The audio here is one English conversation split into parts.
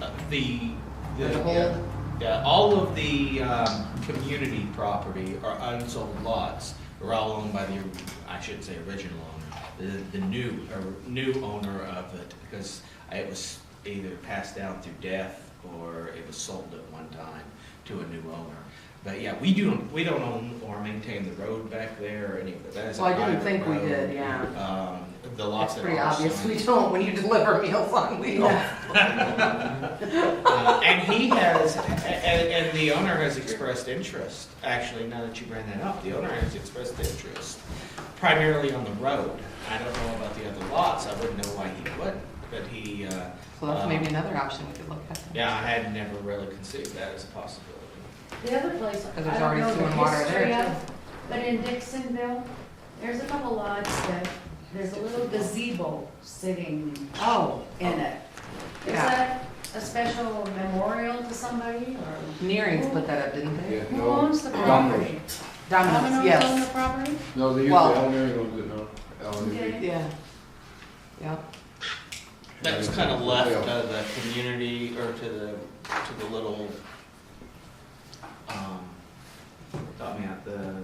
Uh, the. As a whole? Yeah, all of the, um, community property or unsold lots are all owned by the, I should say original owner, the, the new, or new owner of it, because it was either passed down through death or it was sold at one time to a new owner. But yeah, we do, we don't own or maintain the road back there or any of that. that. is a Well, I didn't private think we road. did, yeah. Um, the lots Oh. It's that are. pretty obvious signed. we don't when you deliver meals on wheels. Uh, And he has, a- and, and the owner has expressed interest, actually, now that you bring that up, the owner has expressed interest primarily on the road. I don't know about the other lots, I wouldn't know why he wouldn't, but he, uh. So that's maybe uh, another option we could look at. Yeah, I had never really conceived that as a possibility. The other place, I Because there's don't already know sewer the and water there, history too. of, but in Dixonville, there's a couple lots that, there's a little gazebo sitting Oh, in it. Is Yeah. that a special memorial to somebody or? Nearing put that up, didn't they? Yeah, Who no, owns the Domino's. property? Domino's, Domino's own the yes. property? No, they use the Well- elementary ones, no, elementary. Okay. Yeah. Yeah. That was kind of left uh, to the community or to the, to the little, um, help me out, the,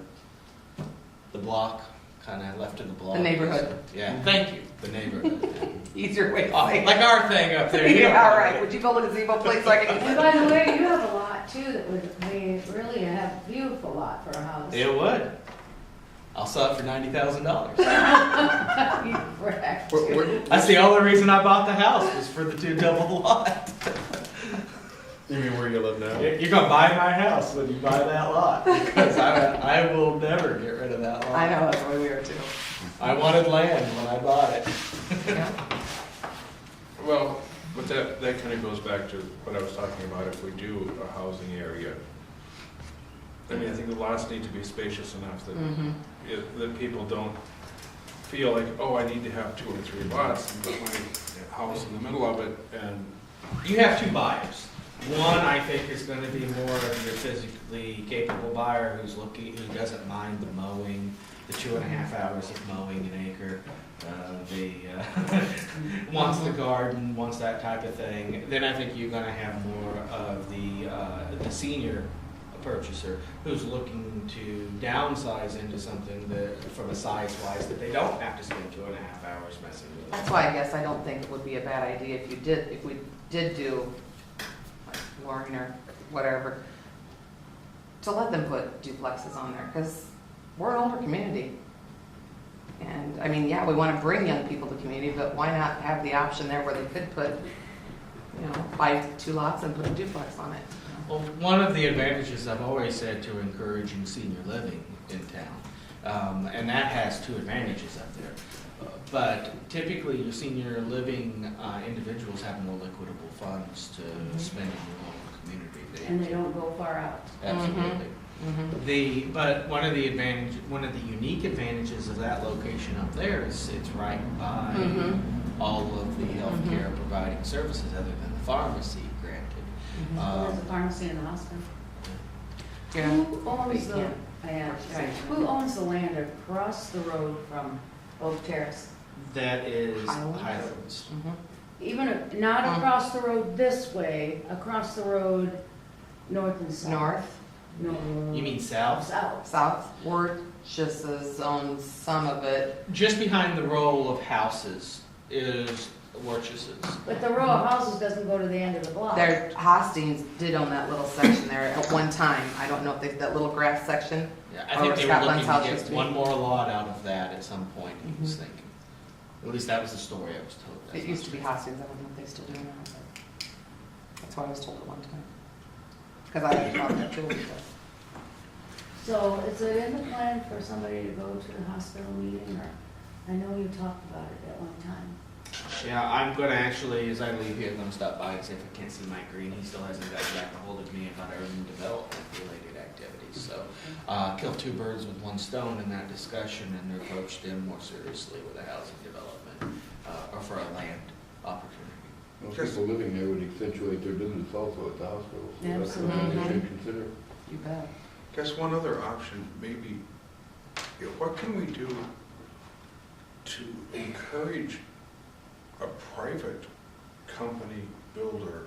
the block, kind of left to the block. The neighborhood. Yeah, thank you, the neighborhood. Easier way to Uh, say it. Like our thing up there. Yeah, all right. Would you go to the gazebo place so I And can? by the way, you have a lot too that would, we really have a beautiful lot for a house. It would. I'll sell it for ninety thousand dollars. Correct. What, what, That's the only reason I bought the house was for the two double lot. you mean where you live now? You're you're gonna buy my house when you buy that lot because I, I will never get rid of that lot. I know, that's the way we are too. I wanted land when I bought it. Yeah. Well, but that, that kind of goes back to what I was talking about, if we do a housing area. I mean, I think the lots need to be spacious enough that, Mhm. it- that people don't feel like, oh, I need to have two or three lots and put my house in the middle of it, and You have two buyers. One, I think, is gonna be more of your physically capable buyer who's looking, who doesn't mind the mowing, the two and a half hours of mowing an acre. Uh, the, uh, wants the garden, wants that type of thing. Then I think you're gonna have more of the, uh, the senior purchaser who's looking to downsize into something that, from a size wise, that they don't have to spend two and a half hours messing with. it. That's why I guess I don't think it would be a bad idea if you did, if we did do like Warren or whatever, to let them put duplexes on there, because we're an older community. And, I mean, yeah, we want to bring young people to the community, but why not have the option there where they could put, you know, buy two lots and put a duplex on it? Well, one of the advantages I've always said to encouraging senior living in town, um, and that has two advantages up there. But typically, your senior living uh, individuals have more liquidable funds to spend in your local community. And they don't go far out. Absolutely. Mhm. The, but one of the advantage, one of the unique advantages of that location up there is it's right by Mhm. all of the healthcare providing services other than the pharmacy granted. Mm-hmm. There's a Um, pharmacy in the hospital. Yeah. Who owns the, Yeah. yeah, right, who owns the land across the road from Oak Terrace? That is Highlands? Highlands. Mhm. Even, if- not Um. across the road this way, across the road, north and south. North, No. You mean south? South. south, we're just as on some of it. Just behind the row of houses is Worcesters's. But the row of houses doesn't go to the end of the block. There, Hostings did own that little section there at one time. I don't know if they, that little grass section, Yeah, I Or think where they Scott were Bunn's looking house to used get to be. Mm-hmm. one more lot out of that at some point, he was thinking. At least that was the story I was told. It used to be Hostings, I don't know if they still do now, but that's what I was told at one time. Because I had a problem with Julie, but So is it in the plan for somebody to go to the hospital meeting or, I know you talked about it at one time. Yeah, I'm gonna actually, as I leave here, I'm gonna stop by and see if I can't see Mike Green. He still hasn't got back a hold of me about urban development related activities, so. Uh, kill two birds with one stone in that discussion and approached them more seriously with a housing development, uh, or for a land opportunity. Well, People living there would accentuate their business also at the hospital, so that's something Absolutely. they should consider. you bet. guess one other option, maybe, you know, what can we do to encourage a private company builder